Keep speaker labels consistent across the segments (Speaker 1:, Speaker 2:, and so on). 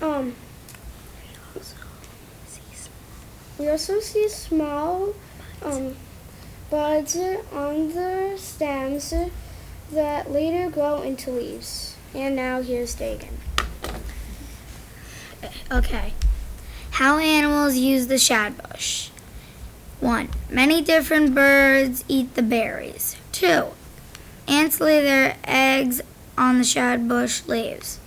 Speaker 1: Um, we also see small um, buds on the stems that later grow into leaves. And now here's Dagan.
Speaker 2: Okay. How animals use the shadbush. 1. Many different birds eat the berries. 2. Ants lay their eggs on the shadbush leaves.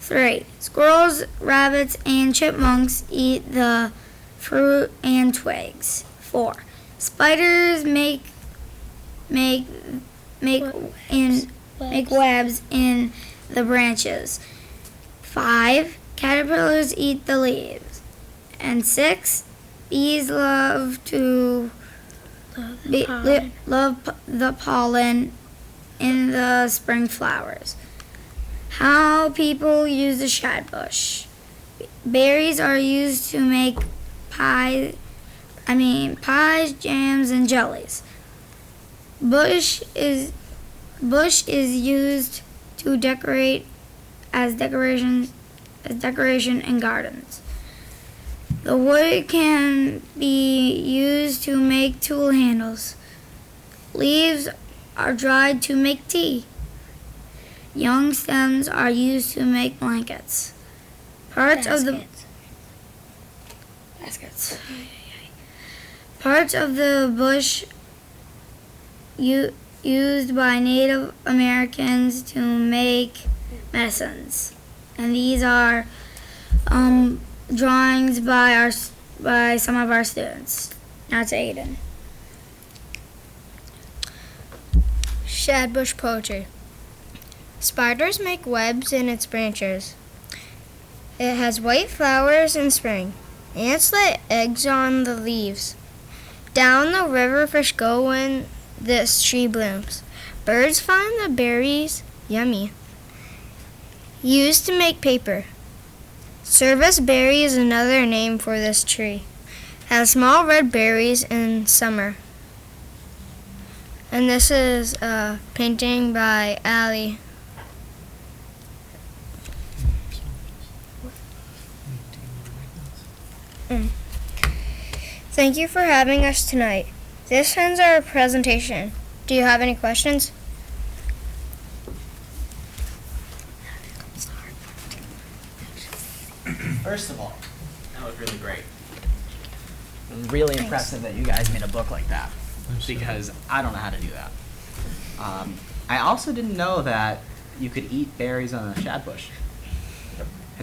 Speaker 2: 3. Squirrels, rabbits, and chipmunks eat the fruit and twigs. 4. Spiders make make make in make webs in the branches. 5. Caterpillars eat the leaves. And 6. Bees love to be, li, love p- the pollen in the spring flowers. How people use the shadbush. Berries are used to make pie I mean pies, jams and jellies. Bush is bush is used to decorate as decorations as decoration in gardens. The wood can be used to make tool handles. Leaves are dried to make tea. Young stems are used to make blankets. Parts of the baskets. Parts of the bush u- used by Native Americans to make medicines, and these are um, drawings by our s- by some of our students. Now to Aiden.
Speaker 3: Shadbush poetry. Spiders make webs in its branches. It has white flowers in spring. Ants lay eggs on the leaves. Down the river fish go when this tree blooms. Birds find the berries yummy. Used to make paper. Service berry is another name for this tree. Has small red berries in summer. And this is a painting by Ali. Mm. Thank you for having us tonight. This ends our presentation. Do you have any questions?
Speaker 4: First of all, that was really great. It was really impressive that you guys made a book like that because I don't know how to do that. Um, I also didn't know that you could eat berries on a shad bush.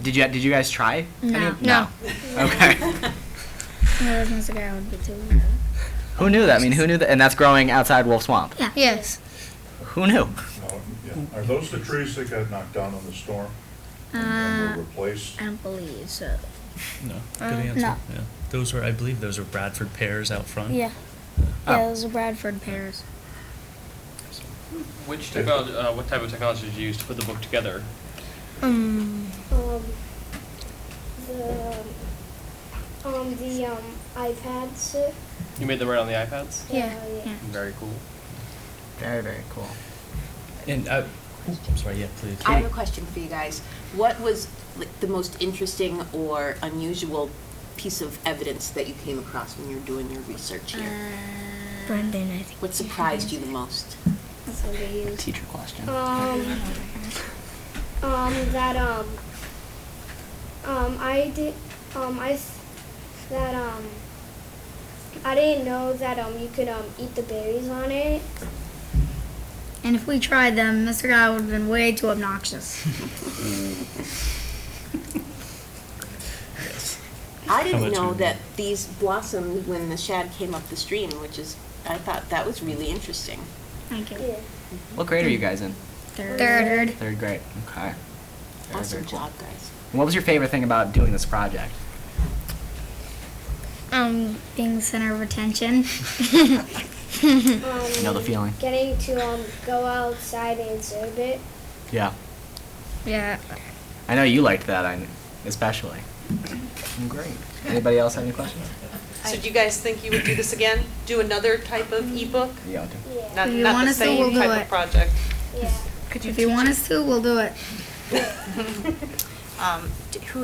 Speaker 4: Did you Did you guys try?
Speaker 2: No.
Speaker 3: No.
Speaker 4: Okay.
Speaker 2: No, that's a guy would be too.
Speaker 4: who knew that? I mean, who knew that? And that's growing outside Wolf Swamp.
Speaker 3: Yes.
Speaker 4: Who knew?
Speaker 5: No, yeah. Are those the trees that got knocked down in the storm and were replaced?
Speaker 2: I don't believe so.
Speaker 6: No, good answer.
Speaker 2: Uh, no.
Speaker 6: Yeah. Those were, I believe, those were Bradford pears out front.
Speaker 2: Yeah. Yeah, those are Bradford pears.
Speaker 7: Which technology, uh, what type of technology did you use to put the book together?
Speaker 3: Um,
Speaker 1: Um, the, um, the um, iPads.
Speaker 7: You made them right on the iPads?
Speaker 2: Yeah,
Speaker 1: Oh,
Speaker 2: yeah.
Speaker 7: Very cool.
Speaker 4: Very very cool.
Speaker 6: And I, I'm sorry. Yeah, please.
Speaker 8: I have a question for you guys. What was like, the most interesting or unusual piece of evidence that you came across when you were doing your research here?
Speaker 2: Uh,
Speaker 3: Brendan,
Speaker 9: Uh,
Speaker 3: I think.
Speaker 8: What surprised you the most?
Speaker 1: That's what they use.
Speaker 4: Teacher question.
Speaker 1: Um, um, that, um, um, I did, um, I, s- that, um, I didn't know that, um, you could, um, eat the berries on it.
Speaker 2: And if we tried them, Mr. Guy would have been way too obnoxious.
Speaker 8: I didn't
Speaker 6: about
Speaker 8: know
Speaker 6: you?
Speaker 8: that these blossomed when the shad came up the stream, which is, I thought that was really interesting.
Speaker 2: Thank you.
Speaker 1: Yeah.
Speaker 4: What grade are you guys in?
Speaker 2: Third.
Speaker 3: Third.
Speaker 4: Third grade. Okay. Very, very
Speaker 8: Awesome
Speaker 4: cool.
Speaker 8: job, guys.
Speaker 4: And What was your favorite thing about doing this project?
Speaker 2: Um, being the center of attention.
Speaker 1: Um,
Speaker 4: You know the feeling.
Speaker 1: Getting to, um, go outside and observe it.
Speaker 4: Yeah.
Speaker 3: Yeah.
Speaker 4: I know you liked that, I kn- especially. Great. Anybody else have any questions?
Speaker 9: So do you guys think you would do this again? Do another type of ebook?
Speaker 4: Yeah.
Speaker 1: Yeah,
Speaker 9: Not,
Speaker 2: If Mm-hmm. you
Speaker 9: not
Speaker 2: want
Speaker 9: the
Speaker 2: us to, we'll
Speaker 9: same
Speaker 2: do
Speaker 9: type
Speaker 2: it.
Speaker 9: of project?
Speaker 1: yeah.
Speaker 2: if you want us to, we'll do it.
Speaker 9: Um, d- who